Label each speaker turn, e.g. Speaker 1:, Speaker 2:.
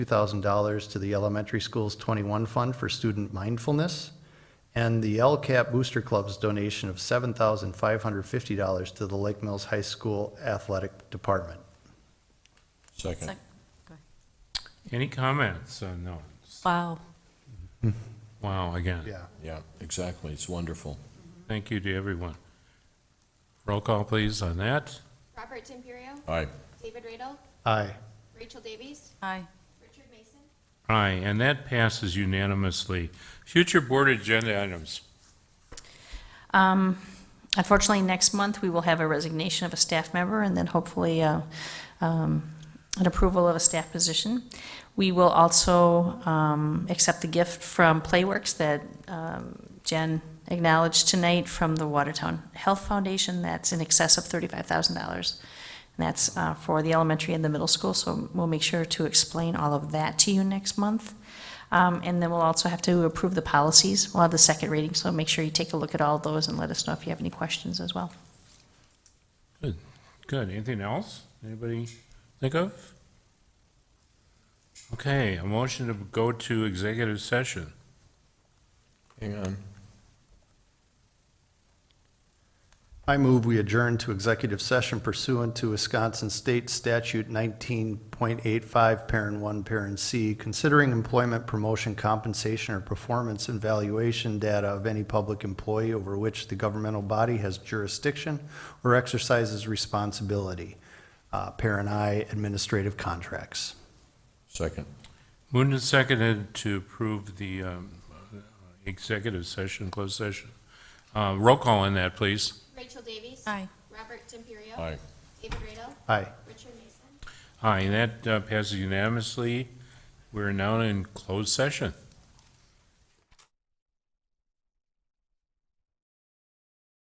Speaker 1: $2,000 to the Elementary School's 21 Fund for Student Mindfulness, and the LCAP Booster Club's donation of $7,550 to the Lake Mills High School Athletic Department.
Speaker 2: Second.
Speaker 3: Any comments on those?
Speaker 4: Wow.
Speaker 3: Wow, again,
Speaker 1: Yeah.
Speaker 2: Yeah, exactly. It's wonderful.
Speaker 3: thank you to everyone. Roll call, please, on that.
Speaker 5: Robert Timperio,
Speaker 2: Aye.
Speaker 5: David Radel,
Speaker 1: Aye.
Speaker 5: Rachel Davies,
Speaker 4: Aye.
Speaker 5: Richard Mason,
Speaker 3: Aye, and that passes unanimously. Future board agenda items.
Speaker 4: Um, Unfortunately, next month, we will have a resignation of a staff member and then hopefully uh, um, an approval of a staff position. We will also um, accept the gift from Playworks that um, Jen acknowledged tonight from the Watertown Health Foundation. That's in excess of $35,000. And that's uh, for the elementary and the middle school, so we'll make sure to explain all of that to you next month. Um, And then we'll also have to approve the policies. We'll have the second reading, so make sure you take a look at all those and let us know if you have any questions as well.
Speaker 3: Good, anything else? Anybody think of? Okay, a motion to go to executive session.
Speaker 2: Hang on.
Speaker 1: I move we adjourn to executive session pursuant to Wisconsin State Statute 19.85, Parent 1, Parent C, considering employment promotion compensation or performance and valuation data of any public employee over which the governmental body has jurisdiction or exercises responsibility. Uh, Parent I, administrative contracts.
Speaker 2: Second.
Speaker 3: Moved and seconded to approve the um, executive session, closed session. Uh, Roll call on that, please.
Speaker 5: Rachel Davies.
Speaker 4: Aye.
Speaker 5: Robert Timperio.
Speaker 2: Aye.
Speaker 5: David Radel,
Speaker 1: Aye.
Speaker 5: Richard Mason.
Speaker 3: Aye, and that uh, passes unanimously. We're now in closed session.